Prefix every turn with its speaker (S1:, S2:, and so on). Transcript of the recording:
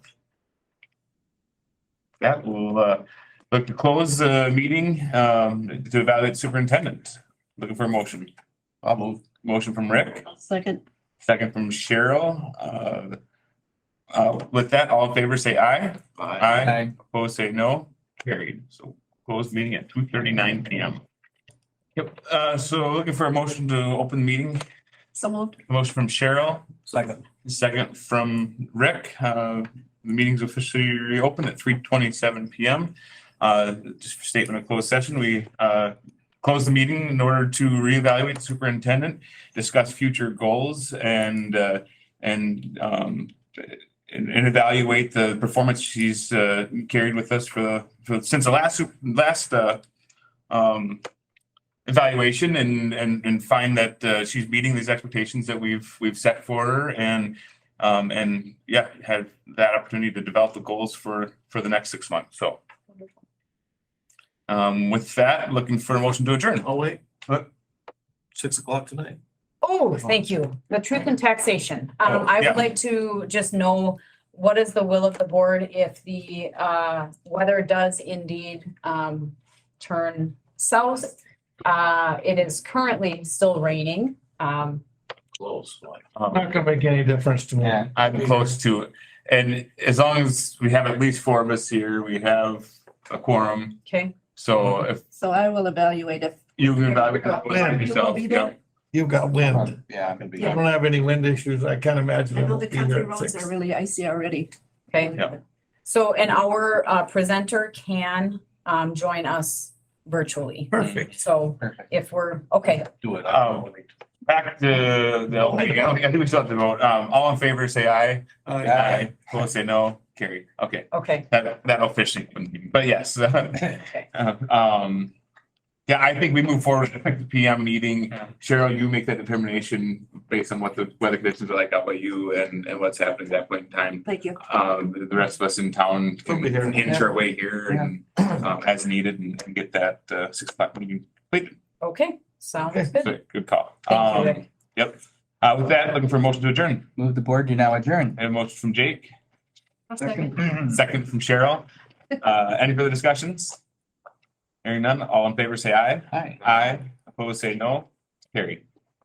S1: Yeah, we'll uh, look to close the meeting um, to evaluate superintendent. Looking for a motion. I'll move. Motion from Rick,
S2: Second,
S1: second from Cheryl. Uh, uh, With that, all in favor, say aye. Aye. Opposed, say no. Carried. So closed meeting at two thirty-nine PM. Yep, uh, so looking for a motion to open the meeting.
S2: so moved.
S1: Motion from Cheryl,
S3: Second.
S1: second from Rick. Uh, The meeting's officially reopened at three twenty-seven PM. Uh, Just for statement of closed session, we uh, close the meeting in order to reevaluate the superintendent, discuss future goals and, uh, and um, and and evaluate the performance she's uh, carried with us for the, for- since the last, sup- last uh, um, evaluation and, and, and find that uh, she's meeting these expectations that we've, we've set for her and, um, and yeah, had that opportunity to develop the goals for, for the next six months, so. Um, with that, looking for a motion to adjourn.
S3: Oh, wait.
S1: What?
S3: Six o'clock tonight.
S4: Oh, thank you. The truth in taxation. Um,
S1: Oh,
S4: I
S1: yeah.
S4: would like to just know what is the will of the board if the, uh, weather does indeed, um, turn south? Uh, it is currently still raining. Um,
S3: Close. like.
S5: Not gonna make any difference to me.
S6: Yeah.
S1: Um, I'm close to it. And as long as we have at least four of us here, we have a quorum.
S4: okay,
S1: So if
S2: So I will evaluate if
S1: you can evaluate
S5: Yeah, you
S2: will
S1: yourself,
S2: be
S1: yeah.
S2: there.
S5: You've got wind.
S6: Yeah, I'm gonna be.
S5: I don't have any wind issues. I can't imagine.
S2: I know
S5: it'll
S2: the
S5: be
S2: country
S5: here at
S2: roads
S5: six.
S2: are really icy already.
S4: okay.
S1: Yeah.
S4: So, and our, uh, presenter can, um, join us virtually.
S5: Perfect.
S4: So
S6: Perfect.
S4: if we're, okay,
S3: Do
S6: Oh.
S3: it.
S1: Um, Back to the, old meeting. I think we still have to vote. Um, all in favor, say aye.
S6: Aye.
S1: Opposed, say no. Carry. Okay,
S4: okay,
S1: that, that officially, wouldn't be- but yes.
S4: okay.
S1: Um, yeah, I think we move forward, with the PM meeting. Cheryl, you make that determination based on what the weather conditions are like out by you and, and what's happening at that point in time.
S2: Thank you.
S1: um, the- the rest of us in town can
S5: We'll be here.
S1: inch our way here and, um, as needed and and get that, uh, six o'clock meeting. completed.
S4: Okay, sounds
S5: Okay.
S4: good.
S1: So, Good call.
S4: Thank you,
S1: Um,
S4: Rick.
S1: Yep. Uh, with that, looking for a motion to adjourn.
S6: Move the board, you now adjourn.
S1: I have a motion from Jake,
S6: Second.
S1: second from Cheryl. Uh, any further discussions? Hearing none, all in favor, say aye.
S6: Hi.
S1: Aye. Opposed, say no. Carry.